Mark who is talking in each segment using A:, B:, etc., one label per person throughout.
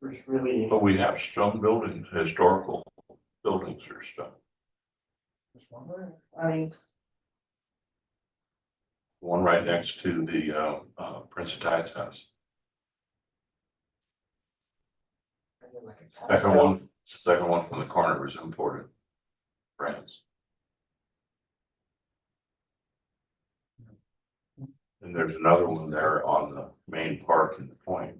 A: There's really,
B: But we have some buildings, historical buildings or stuff.
A: I mean,
B: One right next to the uh, uh, Prince of Tides house. Second one, second one from the corner was imported. France. And there's another one there on the main park in the point.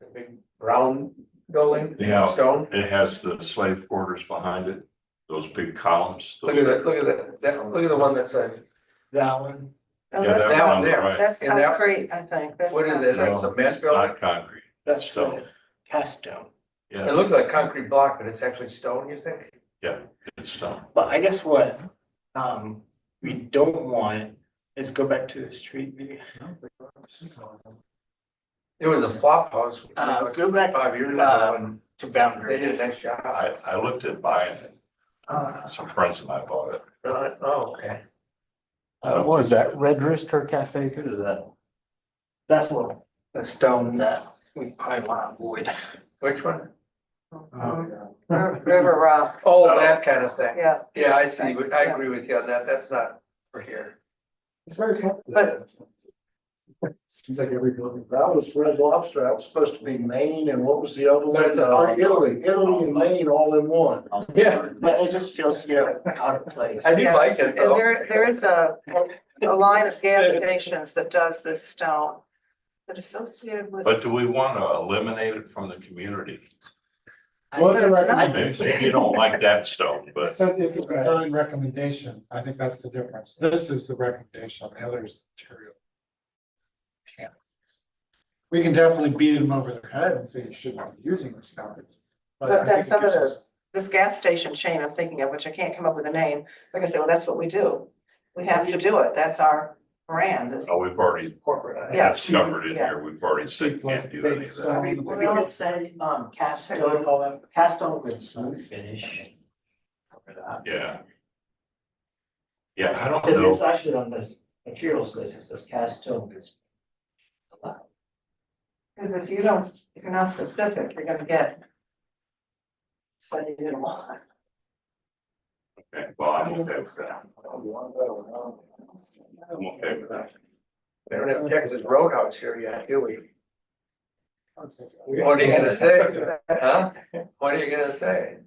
C: The big brown building,
B: Yeah.
C: stone.
B: It has the slave quarters behind it, those big columns. those-
C: Look at that, look at that, that, look at the one that's a,
D: That one,
E: Oh,
B: Yeah,
E: that's,
B: that one on the
C: there.
B: right.
E: that's
C: and that-
E: concrete, I think. That's
C: what is
E: concrete.
C: it, that's
B: No,
C: a cement
B: it's
C: building?
B: Not concrete,
D: that's
B: so,
D: the cast stone.
C: It
B: yeah,
C: looks like concrete block, but it's actually stone, you think?
B: it's stone.
D: But I guess what, um, we don't want is go back to the street view.
C: There was a flop house. you
D: Uh,
C: know,
D: go back,
C: Five years
D: uh,
C: ago, and
D: to
C: they did a
D: boundary.
C: nice job.
B: I, I looked at buying it,
D: Uh,
B: some friends of mine bought it.
C: Uh, Oh, okay.
B: I don't-
D: what was that, Red Rooster Cafe, who is that? That's what, the stone that we probably want to avoid.
C: Which one?
D: Uh-huh.
E: Mhm. Ri- River Rock,
C: Oh, that kind of thing.
E: yeah.
C: Yeah, I see, but I agree with you on that, that's not for here.
F: It's very complicated.
E: But-
F: Seems like every building. That was Red Lobster, that was supposed to be Maine, and what was the other one?
C: But it's a-
F: Uh, Italy, Italy and Maine all in one.
C: Yeah.
D: But it just feels, you know, out of place.
C: I do
E: Yeah.
C: like it
E: And
C: though.
E: there, there is a, a line of gas stations that does this stone that associated with.
B: But do we want to eliminate it from the community?
F: What's the
E: But it's not-
B: Maybe
F: recommendation?
B: You don't like that stone, but
G: So it's a design recommendation, I think that's the difference, this is the recommendation, the other is material. Can't. We can definitely beat them over their head and say you shouldn't be using this stuff.
E: But then some of the- This gas station chain I'm thinking of, which I can't come up with a name, they're gonna say, well, that's what we do. We have to do it. That's our brand. It's-
B: oh, we've already
C: Corporate.
E: Yeah.
B: discovered in here, we've already said can't do any of that.
D: We all say, um, cast
F: What do they
D: stone,
F: call that?
D: cast stone with smooth finish. Cover that.
B: Yeah. Yeah, I don't
D: Because
B: know,
D: it's actually on this materials list, it says cast stone. it's-
E: Cause if you don't, if you're not specific, you're gonna get. So you didn't want.
B: Okay, well, I'm okay with that, I'm okay with that.
C: They don't have Texas Roadhouse here yet, do we?
G: What
C: What are you gonna say? Huh? What are you gonna say?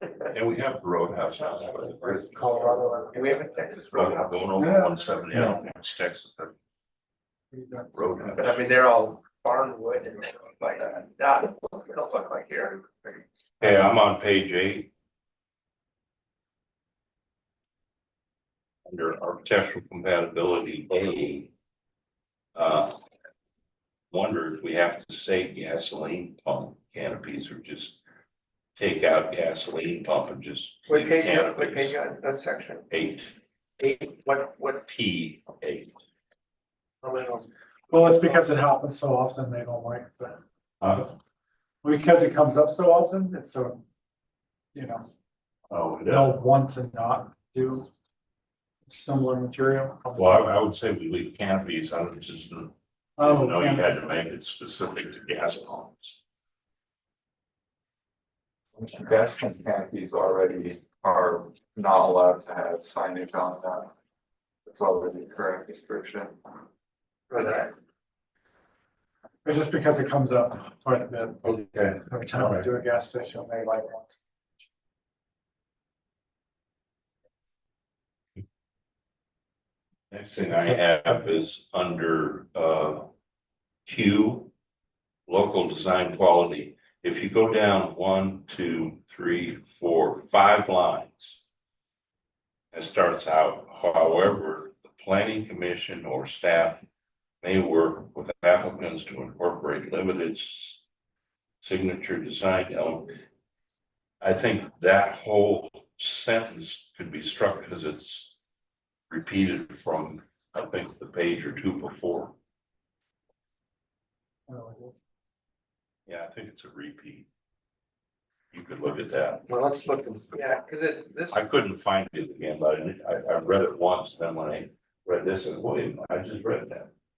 B: And we have Roadhouse now, but the bridge.
C: Colorado. Do we have a Texas
B: Roadhouse
C: Roadhouse?
B: going over one seventy, I don't think it's Texas, but Roadhouse.
C: But I mean, they're all barnwood and stuff like that, not, they don't look like here.
B: Hey, I'm on page eight. Under architectural compatibility, A. Uh. Wonder if we have to say gasoline pump canopies or just take out gasoline pump and just.
C: What
B: leave
C: page, you on? what page
B: canopies.
C: you on, that section?
B: Eight,
C: Eight, what, what?
B: P, eight.
G: Well, it's because it happens so often, they don't like that,
B: Uh,
G: because it comes up so often, it's so. You know,
B: Oh, yeah.
G: they'll want to not do similar material.
B: Well, I- I would say we leave canopies, I don't just, I
G: Oh,
B: didn't know you
G: yeah.
B: had to make it specific to gas pumps.
H: Pedestrian canopies already are not allowed to have signage on them. It's already a current restriction.
G: It's just because it comes up quite a bit,
B: Okay.
G: every time we do a gas station, they like want.
B: Next thing I have is under uh Q. Local design quality. If you go down one, two, three, four, five lines. It starts out, however, the planning commission or staff may work with applicants to incorporate limited. s- Signature design element. I think that whole sentence could be struck because it's repeated from, I think, the page or two before. Yeah, I think it's a repeat. You could look at that.
C: Well, let's look, and- yeah, cause it, this,
B: I couldn't find it again, but I, I, I read it once, then when I read this, I said, wait, I just read that.